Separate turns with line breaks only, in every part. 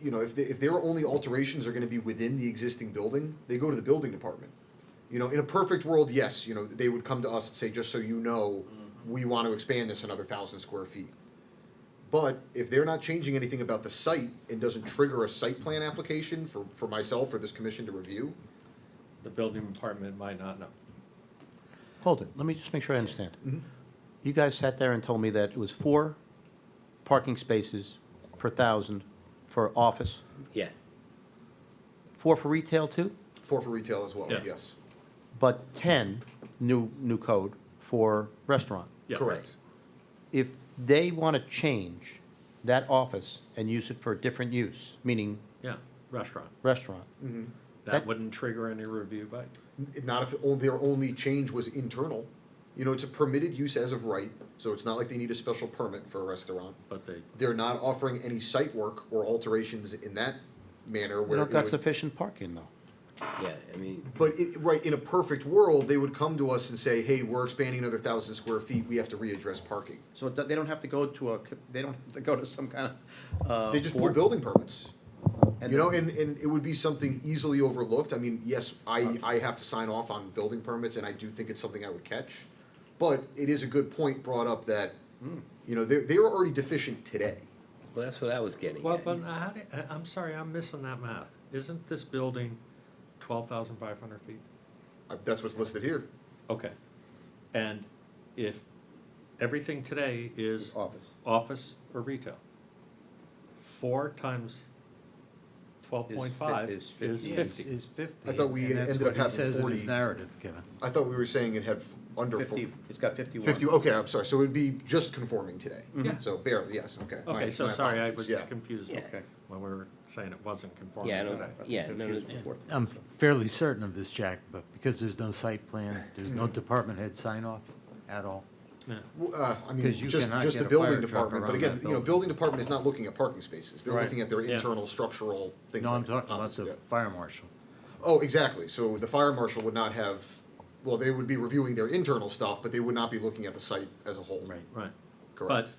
you know, if, they, if their only alterations are gonna be within the existing building, they go to the building department. You know, in a perfect world, yes, you know, they would come to us and say, just so you know,
Mm-hmm.
we want to expand this another thousand square feet. But if they're not changing anything about the site and doesn't trigger a site plan application for, for myself or this commission to review,
The building department might not know.
Hold it, let me just make sure I understand. You guys sat there and told me that it was four parking spaces per thousand for office,
Yeah.
four for retail too,
four for retail as well,
Yeah.
yes,
but 10, new, new code, for restaurant.
Yeah.
correct.
If they want to change that office and use it for a different use, meaning
Yeah, restaurant.
restaurant,
That
That-
wouldn't trigger any review by,
N- Not if on- their only change was internal, you know, it's a permitted use as of right, so it's not like they need a special permit for a restaurant.
but they,
They're not offering any site work or alterations in that manner
we
where.
don't
it
got
would-
sufficient parking though.
Yeah, I mean,
But it, right in a perfect world, they would come to us and say, "Hey, we're expanding another thousand square feet. We have to readdress parking."
So it do- they don't have to go to a, co- they don't have to go to some kind of. uh,
They just pull
board?
building permits,
And
you know,
then-
and, and it would be something easily overlooked. I mean, yes,
Uh.
I I have to sign off on building permits, and I do think it's something I would catch. But it is a good point brought up that,
Hmm.
you know, they they are already deficient today.
well, that's what I was getting
well,
at.
but I, had it- I- I'm sorry, I'm missing that math. Isn't this building twelve thousand five hundred feet?
Uh, That's what's listed here.
Okay. And if everything today is
Office.
office or retail, four times twelve
Is
point
fif-
five
is
is
fifty.
fifty.
Is fifty.
I thought we
and that's
ended
what
up
he
having
says in
40.
his narrative, Kevin.
I thought we were saying it had f- under four-
Fifty, oh. it's got fifty-one.
Fifty. Okay, I'm sorry. So it would be just conforming today.
Yeah.
So barely. Yes. Okay. my-
Okay, so
my
sorry, I
apologies,
was
yeah.
confused
Yeah.
when we were saying it wasn't conforming
Yeah, I
today.
don't, yeah, no, no, before.
I'm fairly certain of this, Jack, but because there's no site plan, there's
Mm-hmm.
no department head sign off at all.
Yeah.
Well, uh, I mean,
'Cause you
just,
cannot
just
get
the
a
building
fire truck
department, but
around
again,
that
you know,
building.
building department is not looking at parking spaces, they're
Right.
looking at their
Yeah.
internal structural things
No, I'm
like.
talking about
office,
the
yeah.
fire marshal.
Oh, exactly, so the fire marshal would not have, well, they would be reviewing their internal stuff, but they would not be looking at the site as a whole.
Right.
Right. But
Correct.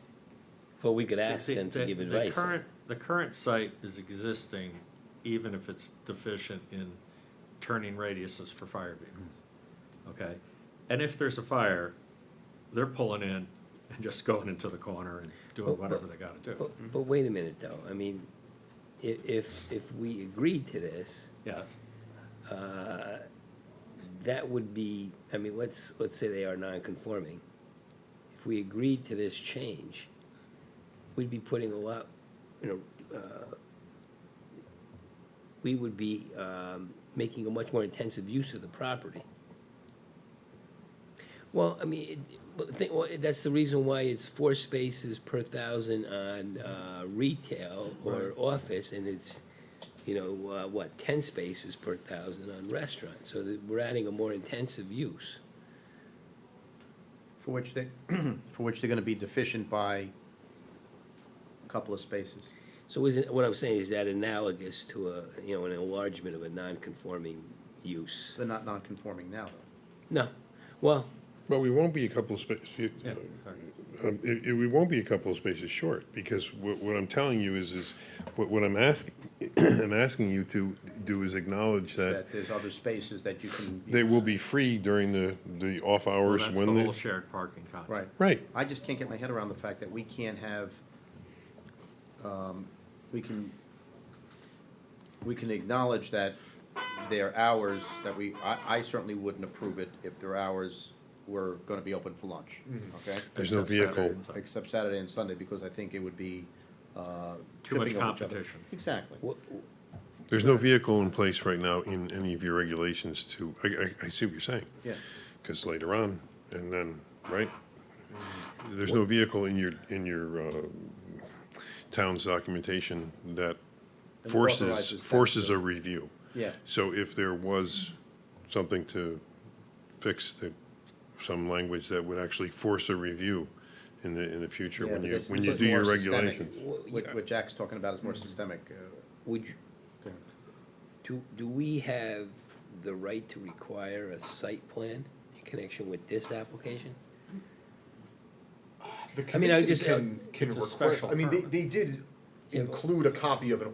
But we could ask
The-
them to
the-
give
the
advice.
current- The current site is existing, even if it's deficient in turning radiuses for fire vehicles, okay? And if there's a fire, they're pulling in and just going into the corner and doing
Well,
whatever
but-
they gotta do,
But, but wait a minute, though, I mean, i- if, if we agreed to this,
yes.
uh, that would be, I mean, let's, let's say they are non-conforming. If we agreed to this change, we'd be putting a lot, you know, uh, we would be um, making a much more intensive use of the property. Well, I mean, it- well, thi- well, that's the reason why it's four spaces per thousand on uh, retail or office, and it's, you know, uh, what, ten spaces per thousand on restaurant, so that we're adding a more intensive use.
For which they, for which they're gonna be deficient by a couple of spaces.
So isn't, what I'm saying, is that analogous to a, you know, an enlargement of a non-conforming use?
They're not non-conforming now, though.
No, well,
Well, we won't be a couple of spaces,
Yeah, sorry.
um, it, it, we won't be a couple of spaces short, because what, what I'm telling you is, is, what, what I'm asking, I'm asking you to do is acknowledge that
That there's other spaces that you can.
they
use.
will be free during the, the off
Well,
hours
that's the
when
whole
they.
shared parking
Right.
concept.
Right,
I just can't get my head around the fact that we can't have, um, we can, we can acknowledge that their hours, that we, I, I certainly wouldn't approve it if their hours were gonna be open for lunch,
Mm-hmm.
okay?
there's no
Except Saturday
vehicle.
and Sunday.
Except Saturday and Sunday, because I think it would be, uh.
Too much
tripping over each other.
competition.
Exactly.
wha-
there's no vehicle in place right now in any of your regulations to, I, I, I see what you're saying.
Yeah.
Because later on, and then, right? There's no vehicle in your, in your uh, town's documentation that
That
forces,
authorizes that.
forces a review.
Yeah.
So if there was something to fix the, some language that would actually force a review in the, in the future,
Yeah,
when
but
you,
this-
when
this
you
is
do your
more systemic.
regulations.
What, what Jack's talking about is more
Mm-hmm.
systemic, uh,
would, you- do, do we have the right to require a site plan in connection with this application?
The
I mean, I
commission
just-
can, can
It's a
request,
uh,
special
I mean, they,
permit.
they did
Yeah, but-
include a copy of an